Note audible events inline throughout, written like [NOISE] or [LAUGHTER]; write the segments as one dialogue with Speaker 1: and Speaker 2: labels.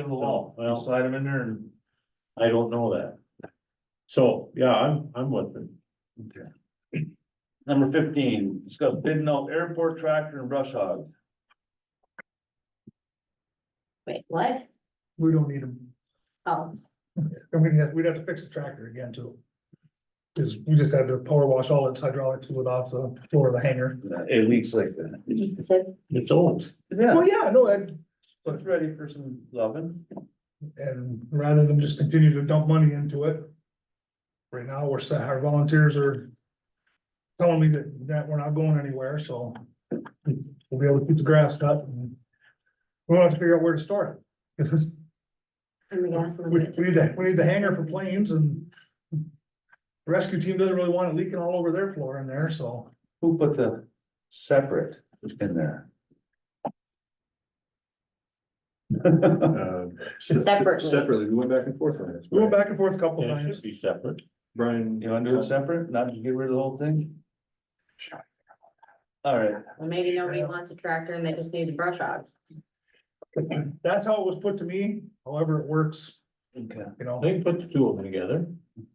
Speaker 1: in the wall, well, slide them in there and I don't know that. So, yeah, I'm, I'm with it.
Speaker 2: Okay. Number fifteen, discuss bidding out airport tractor and brush hog.
Speaker 3: Wait, what?
Speaker 4: We don't need them,
Speaker 3: Oh,
Speaker 4: and we'd have, we'd have to fix the tractor again too. Cause we just had to power wash all its hydraulic fluid off the floor of the hangar.
Speaker 2: It leaks like that.
Speaker 3: so
Speaker 1: It's old.
Speaker 2: Yeah,
Speaker 4: Well, yeah, no, and,
Speaker 2: it's ready for some loving.
Speaker 4: and rather than just continue to dump money into it. Right now, we're, sa- our volunteers are. Telling me that, that we're not going anywhere, so. We'll be able to keep the grass cut and. We'll have to figure out where to store it. 'Cause
Speaker 3: and the gas
Speaker 4: We,
Speaker 3: limit.
Speaker 4: we need that, we need the hangar for planes and. the Rescue team doesn't really want it leaking all over their floor in there, so
Speaker 2: Who put the separate in there?
Speaker 3: [LAUGHS] Separately.
Speaker 5: Um, Separately, we went back and forth on this.
Speaker 4: we went back and forth a couple
Speaker 1: It
Speaker 4: times.
Speaker 1: should be separate.
Speaker 5: Brian.
Speaker 2: You wanna do it separate, not just get rid of the whole thing? All right,
Speaker 3: Well, maybe nobody wants a tractor and they just need a brush hog.
Speaker 4: That's how it was put to me, however it works,
Speaker 2: okay,
Speaker 4: you know,
Speaker 1: They can put the two of them together.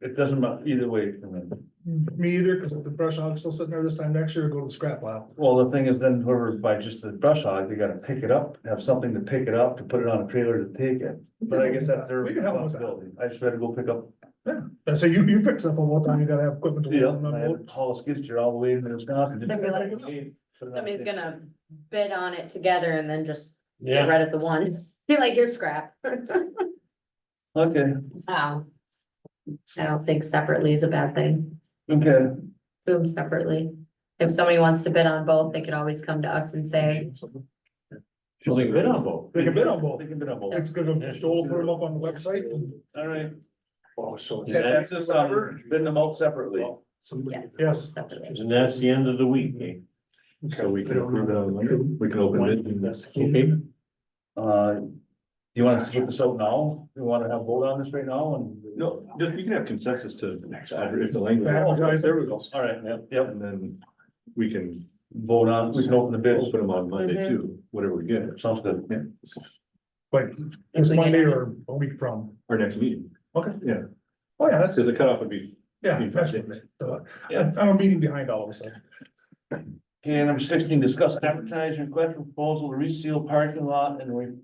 Speaker 2: it doesn't matter either way for me.
Speaker 4: me either, because if the brush hog's still sitting there this time next year, it'll go to the scrap pile.
Speaker 2: Well, the thing is then whoever buys just the brush hog, they gotta pick it up, have something to pick it up, to put it on a trailer to take it. But I guess that's their
Speaker 4: We can help with that.
Speaker 2: responsibility. I just had to go pick up,
Speaker 4: I say, you, you pick stuff up all the time, you gotta have equipment to.
Speaker 2: yeah,
Speaker 4: load them
Speaker 2: I
Speaker 4: up.
Speaker 2: had to haul a skid steer all the way into Wisconsin. just-
Speaker 3: They'd be like,
Speaker 2: Put it on
Speaker 3: Somebody's
Speaker 2: a-
Speaker 3: gonna bid on it together and then just get rid of the one. [LAUGHS] Be like, you're scrap. [LAUGHS]
Speaker 2: Okay,
Speaker 3: Wow. I don't think separately is a bad thing.
Speaker 2: okay,
Speaker 3: Boom separately. If somebody wants to bid on both, they could always come to us and say,
Speaker 1: She'll leave it on both.
Speaker 4: They can bid on both.
Speaker 2: they can bid on both.
Speaker 4: It's good, to Joel put them up on the website and.
Speaker 2: All right.
Speaker 5: Oh, so.
Speaker 4: Yeah.
Speaker 2: That's just, um, bid them out separately.
Speaker 3: yes.
Speaker 4: Yes.
Speaker 3: separately.
Speaker 1: And that's the end of the week, eh?
Speaker 5: So we can approve that, on Monday? we can open it. and-
Speaker 1: Okay.
Speaker 2: Uh, do you want to split this out now? You wanna have a vote on this right now and?
Speaker 5: No, just, you can have consensus to, if the language.
Speaker 4: Advertise.
Speaker 5: There we go.
Speaker 2: All right, yep, yep,
Speaker 5: And then we can
Speaker 2: vote on, we can open the bids,
Speaker 5: open them on Monday
Speaker 3: Mm-hmm.
Speaker 5: too, whatever we get,
Speaker 2: sounds good.
Speaker 5: yeah,
Speaker 4: Like
Speaker 3: If
Speaker 4: this
Speaker 3: we get
Speaker 4: Monday
Speaker 3: any-
Speaker 4: or a week from.
Speaker 5: our next meeting.
Speaker 4: Okay.
Speaker 5: Yeah,
Speaker 4: Oh, yeah, that's,
Speaker 5: so the cutoff would be,
Speaker 4: yeah, that's, uh, I'm I'm a meeting behind all of us.
Speaker 2: Okay, number sixteen, discuss advertise request proposal to reseal parking lot and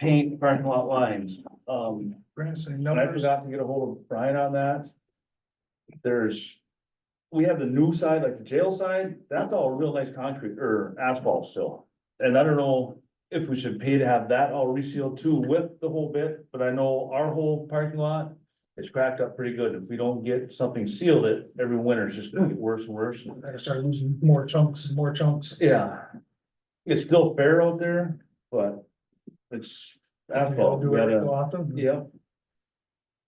Speaker 2: repaint parking lot lines. Um,
Speaker 4: Grants and
Speaker 2: and I
Speaker 4: numbers.
Speaker 2: forgot to get a hold of Brian on that. There's, we have the new side, like the jail side, that's all real nice concrete or asphalt still. And I don't know if we should pay to have that all resealed too with the whole bit, but I know our whole parking lot. is cracked up pretty good. If we don't get something sealed it, every winter it's just gonna get worse and worse.
Speaker 4: I started losing more chunks and more chunks.
Speaker 2: Yeah. It's still fair out there, but it's asphalt,
Speaker 4: Do
Speaker 2: we
Speaker 4: it every
Speaker 2: gotta,
Speaker 4: so often.
Speaker 2: yeah,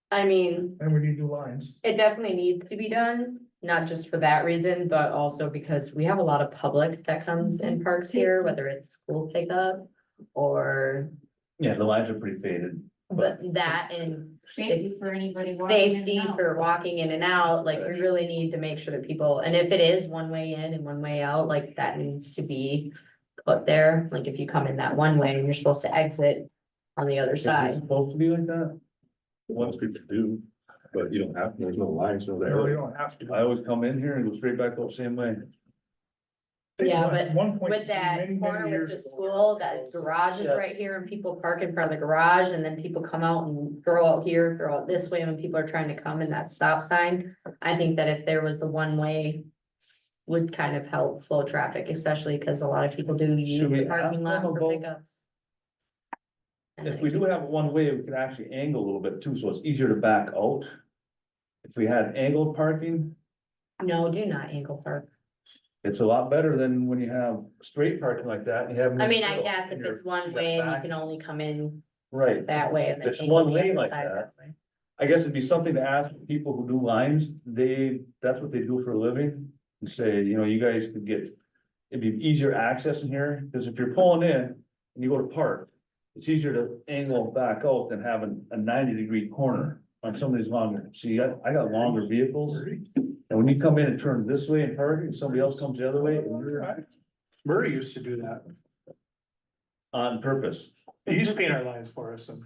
Speaker 3: I mean,
Speaker 4: And we need new lines.
Speaker 3: it definitely needs to be done, not just for that reason, but also because we have a lot of public that comes in parks here, whether it's school pickup. Or
Speaker 2: yeah, the lines are pretty faded.
Speaker 3: but that and
Speaker 6: Safety for anybody. walking in and
Speaker 3: safety
Speaker 6: out.
Speaker 3: for walking in and out, like we really need to make sure that people, and if it is one way in and one way out, like that needs to be. Put there, like if you come in that one way and you're supposed to exit on the other
Speaker 2: Is it
Speaker 3: side.
Speaker 2: Supposed to be like that?
Speaker 5: once people do, but you don't have, there's no lines, no
Speaker 4: We
Speaker 5: there.
Speaker 4: really don't have to.
Speaker 2: I always come in here and go straight back out same way.
Speaker 3: Yeah,
Speaker 4: At
Speaker 3: but
Speaker 4: one point,
Speaker 3: With that
Speaker 4: many, many
Speaker 3: corner with
Speaker 4: years
Speaker 3: the
Speaker 4: ago,
Speaker 3: school, that garage is
Speaker 2: Yes.
Speaker 3: right here and people park in front of the garage and then people come out and throw out here, throw out this way when people are trying to come in that stop sign. I think that if there was the one way s- would kind of help flow traffic, especially because a lot of people do use
Speaker 2: Should we
Speaker 3: the
Speaker 2: ask
Speaker 3: parking lot
Speaker 2: them
Speaker 3: for
Speaker 2: about-
Speaker 3: pickups. And
Speaker 2: If
Speaker 3: I
Speaker 2: we do
Speaker 3: think
Speaker 2: have
Speaker 3: that's-
Speaker 2: one way, we can actually angle a little bit too, so it's easier to back out. If we had angled parking,
Speaker 3: No, do not angle park.
Speaker 2: it's a lot better than when you have straight parking like that, and you have.
Speaker 3: I mean, I guess if
Speaker 2: And you're-
Speaker 3: it's one
Speaker 2: you're
Speaker 3: way and you
Speaker 2: back.
Speaker 3: can only come in
Speaker 2: Right,
Speaker 3: that way. and then
Speaker 2: It's
Speaker 3: angle
Speaker 2: one
Speaker 3: the
Speaker 2: lane
Speaker 3: other
Speaker 2: like
Speaker 3: side
Speaker 2: that.
Speaker 3: way.
Speaker 2: I guess it'd be something to ask people who do lines, they, that's what they do for a living, and say, you know, you guys could get. It'd be easier access in here, because if you're pulling in and you go to park, it's easier to angle back out than having a ninety degree corner. On some of these longer, see, I, I got longer vehicles, and when you come in and turn this way and park, and somebody else comes the other way, and you're
Speaker 7: Murray used to do that.
Speaker 2: on purpose.
Speaker 7: He used to paint our lines for us and